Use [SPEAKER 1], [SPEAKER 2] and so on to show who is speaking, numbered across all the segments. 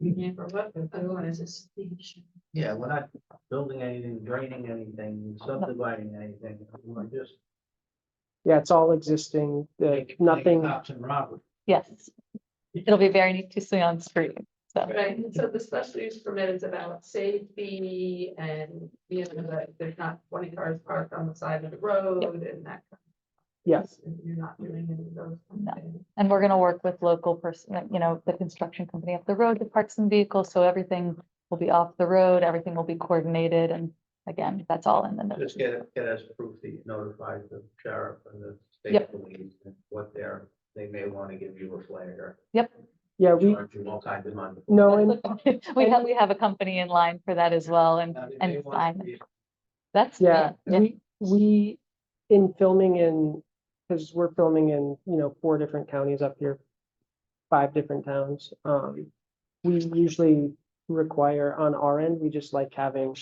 [SPEAKER 1] Yeah, for what, otherwise it's.
[SPEAKER 2] Yeah, we're not building anything, draining anything, subdividing anything, we're just.
[SPEAKER 3] Yeah, it's all existing, uh,
[SPEAKER 2] making- making
[SPEAKER 3] nothing,
[SPEAKER 2] Cops and robbers.
[SPEAKER 4] Yes. It'll be very neat to see on screen, so.
[SPEAKER 1] Right, and so the special use permit is about safety and, you know, that there's not twenty cars parked on the side of the road and that. kind of
[SPEAKER 3] yes,
[SPEAKER 1] stuff, and You're not doing any of those. kind
[SPEAKER 4] No.
[SPEAKER 1] of things.
[SPEAKER 4] And we're gonna work with local person, you know, the construction company up the road to park some vehicles, so everything will be off the road, everything will be coordinated, and again, that's all in the notes.
[SPEAKER 2] Just get, get us proof that you notified the sheriff and the state
[SPEAKER 4] Yep.
[SPEAKER 2] police and what they're, they may want to give you a flag
[SPEAKER 3] yeah,
[SPEAKER 2] or
[SPEAKER 3] we,
[SPEAKER 2] charge you all kinds of money.
[SPEAKER 3] no, and
[SPEAKER 4] We have, we have a company in line for that as well, and
[SPEAKER 2] Now, if
[SPEAKER 4] and
[SPEAKER 2] they want
[SPEAKER 4] fine.
[SPEAKER 2] to be-
[SPEAKER 4] that's.
[SPEAKER 3] Yeah,
[SPEAKER 4] yeah,
[SPEAKER 3] we, we, in filming in, because we're filming in, you know, four different counties up here, five different towns, um, we usually require on our end, we just like having,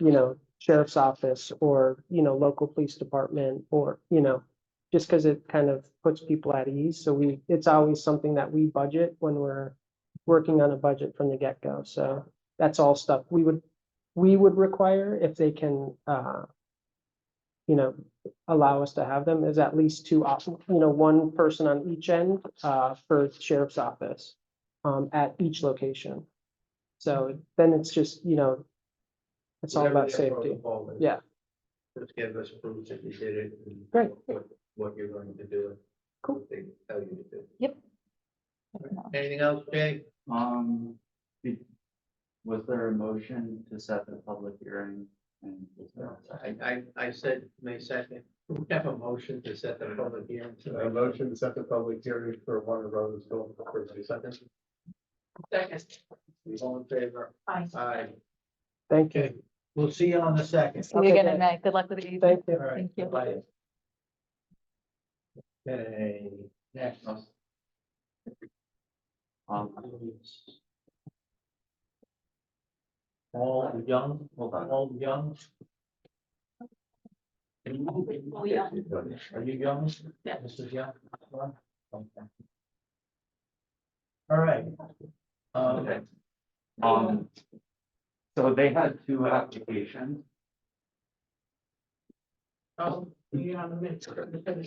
[SPEAKER 3] you know, sheriff's office or, you know, local police department or, you know, just because it kind of puts people at ease. So we, it's always something that we budget when we're working on a budget from the get-go. So that's all stuff we would we would require if they can, uh, you know, allow us to have them is at least two, op- you know, one person on each end, uh, for sheriff's office, um, at each location. So then it's just, you know, it's all
[SPEAKER 2] whatever
[SPEAKER 3] about
[SPEAKER 2] their
[SPEAKER 3] safety.
[SPEAKER 2] protocol is,
[SPEAKER 3] Yeah.
[SPEAKER 2] Just give us proof that you did it. and
[SPEAKER 3] Great.
[SPEAKER 2] What what you're going to do. and
[SPEAKER 3] Cool.
[SPEAKER 2] what They tell you to do.
[SPEAKER 4] definitely.
[SPEAKER 2] Anything else, Jay?
[SPEAKER 5] Um, be- was there a motion to set the public hearing? And was there a second?
[SPEAKER 2] I, I, I said May second, we have a motion to set the public hearing. to-
[SPEAKER 6] A motion to set the public hearing for one of those going for the second.
[SPEAKER 1] Second,
[SPEAKER 2] All in favor?
[SPEAKER 1] fine.
[SPEAKER 2] Aye.
[SPEAKER 3] Thank you.
[SPEAKER 2] Okay, we'll see you on the second.
[SPEAKER 4] See you
[SPEAKER 3] Okay,
[SPEAKER 4] again
[SPEAKER 3] great.
[SPEAKER 4] at night, good luck with the evening.
[SPEAKER 3] Thank you.
[SPEAKER 2] All right,
[SPEAKER 4] Thank you.
[SPEAKER 2] bye-bye. Okay, next.
[SPEAKER 5] Um,
[SPEAKER 2] All young,
[SPEAKER 5] hold on,
[SPEAKER 2] all young.
[SPEAKER 1] Oh, yeah.
[SPEAKER 2] Are you young?
[SPEAKER 1] Yeah.
[SPEAKER 2] Mrs. Young? Okay. All right. Um,
[SPEAKER 5] okay. Um, so they had two applications.
[SPEAKER 1] Oh, you're on the minute.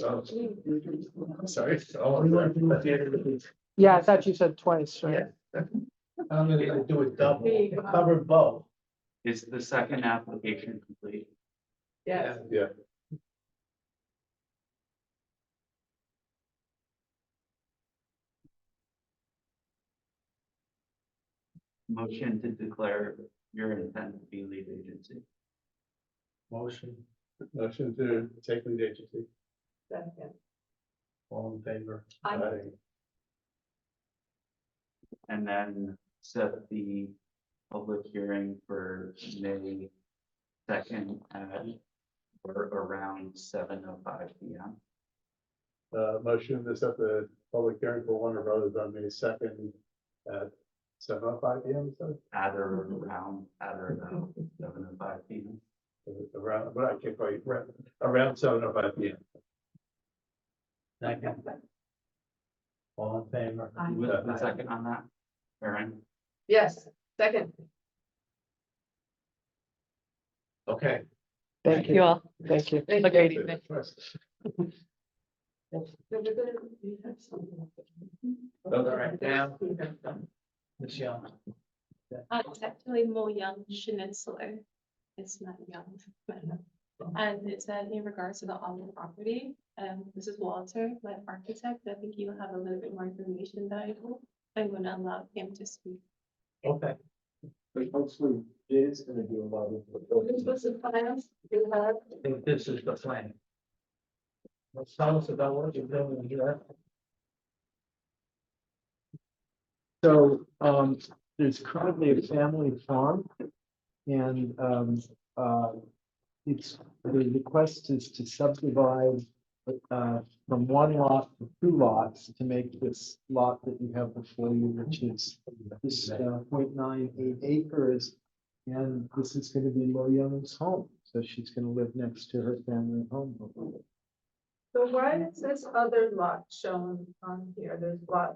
[SPEAKER 2] Oh,
[SPEAKER 6] I'm sorry.
[SPEAKER 3] Yeah, I thought you said twice, right?
[SPEAKER 2] Yeah. I'm gonna do it double, cover both.
[SPEAKER 5] Is the second application complete?
[SPEAKER 1] Yes.
[SPEAKER 6] Yeah.
[SPEAKER 5] Motion to declare your intent to be lead agency.
[SPEAKER 2] Motion,
[SPEAKER 6] Motion to take lead E agency.
[SPEAKER 1] Second.
[SPEAKER 2] all in favor?
[SPEAKER 1] Aye.
[SPEAKER 5] And then set the public hearing for May second at or around seven oh five P M.
[SPEAKER 6] Uh, motion to set the public hearing for Warner Brothers on May second at seven oh five P M, so.
[SPEAKER 5] at or around, at or about seven and five feet.
[SPEAKER 6] Around, but I can't quite, around- around seven oh five P M.
[SPEAKER 2] Second. All in favor?
[SPEAKER 1] Aye.
[SPEAKER 5] Was the second on that? Aaron,
[SPEAKER 1] Yes, second.
[SPEAKER 2] Okay.
[SPEAKER 3] Thank
[SPEAKER 4] You
[SPEAKER 3] you,
[SPEAKER 4] all,
[SPEAKER 3] thank you.
[SPEAKER 1] Thank
[SPEAKER 4] have a
[SPEAKER 1] you.
[SPEAKER 4] great evening.
[SPEAKER 1] No, we're gonna- we have something.
[SPEAKER 2] Those are right now. Ms. Young,
[SPEAKER 7] Uh, it's actually Mo Young Schnitzler. It's not Young. but, And it's uh, in regards to the Alden property. Um, this is Walter, my architect. I think you have a little bit more information that I hope I'm gonna allow him to speak.
[SPEAKER 2] okay.
[SPEAKER 6] But hopefully it is gonna do a lot
[SPEAKER 1] This was the finance, you have,
[SPEAKER 2] I think this is the plan. Well, Tell us about what you're doing here.
[SPEAKER 8] So, um, there's currently a family farm. And, um, uh, it's, the request is to subdivide, uh, from one lot to two lots to make this lot that you have before you, which is this, uh, point nine eight acres. And this is gonna be Mo Young's home, so she's gonna live next to her family home.
[SPEAKER 1] so why is this other lot shown on here? There's lot